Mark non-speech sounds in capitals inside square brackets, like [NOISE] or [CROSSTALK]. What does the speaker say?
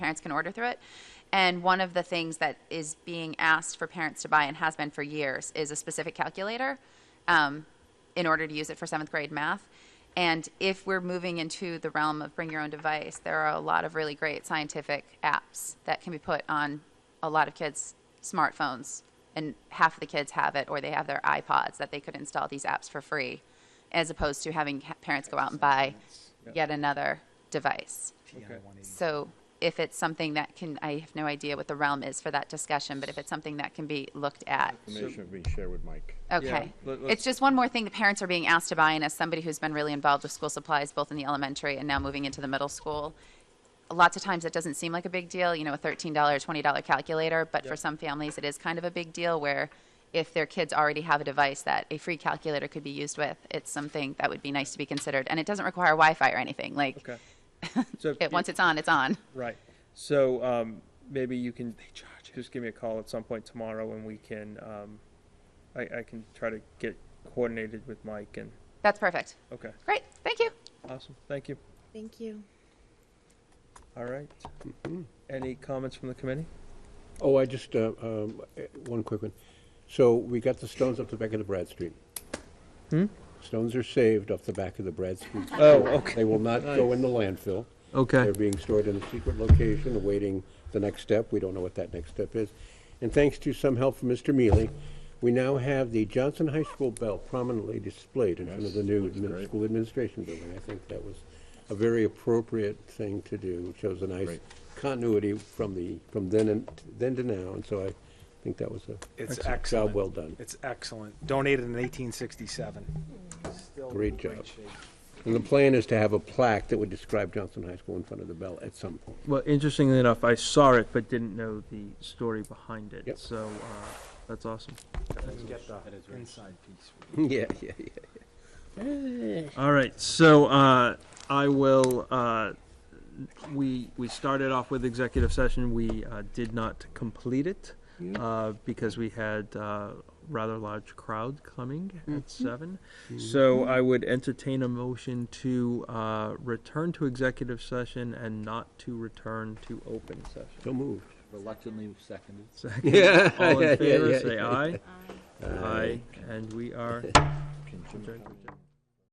parents can order through it. And one of the things that is being asked for parents to buy and has been for years is a specific calculator um, in order to use it for seventh grade math. And if we're moving into the realm of bring your own device, there are a lot of really great scientific apps that can be put on a lot of kids' smartphones. And half of the kids have it, or they have their iPods that they could install these apps for free, as opposed to having ha- parents go out and buy yet another device. So if it's something that can, I have no idea what the realm is for that discussion, but if it's something that can be looked at, Information being shared with Mike. okay. let- It's let's- just one more thing the parents are being asked to buy, and as somebody who's been really involved with school supplies, both in the elementary and now moving into the middle school, lots of times it doesn't seem like a big deal, you know, a $13, $20 calculator, but for Yep. some families, it is kind of a big deal where if their kids already have a device that a free calculator could be used with, it's something that would be nice to be considered. And it doesn't require Wi-Fi or anything, like, [LAUGHS] Okay. So if you- it, once it's on, it's on. Right. So um, maybe you can just give me a call at some point tomorrow, and we can. Um, I, I can try to get coordinated with Mike and. That's perfect. Okay. Great, thank you. Awesome. Thank you. Thank you. All right. Mm-hmm. Any comments from the committee? Oh, I just, uh, um, eh, one quick one. So we got the stones off the back of the Brad Street. Stones are saved off the back of the Brad Street. Oh, okay. They will not go in the landfill. Okay. They're being stored in a secret location, awaiting the next step. We don't know what that next step is. And thanks to some help from Mr. Mealy, we now have the Johnson High School bell prominently displayed in front of the new admin- great. school administration building. I think that was a very appropriate thing to do. It shows a nice Great. continuity from the, from then and, then to now, and so I think that was a It's job excellent. well done. It's excellent. Donated in 1867. Great job. And the plan is to have a plaque that would describe Johnson High School in front of the bell at some point. Well, interestingly enough, I saw it but didn't know the story behind it. Yep. So uh, that's awesome. Get the inside piece. Yeah, yeah, yeah. All right, so uh, I will. Uh, we we started off with executive session. We uh, did not complete it uh, because we had uh, rather large crowd coming Mm-hmm. at 7 So I would entertain a motion to uh, return to executive session and not to return to open [LAUGHS] session. So moved. Reluctantly seconded. Second, [LAUGHS] Yeah, all in yeah, favor, yeah, say yeah. aye. Aye, and we are. adjourned.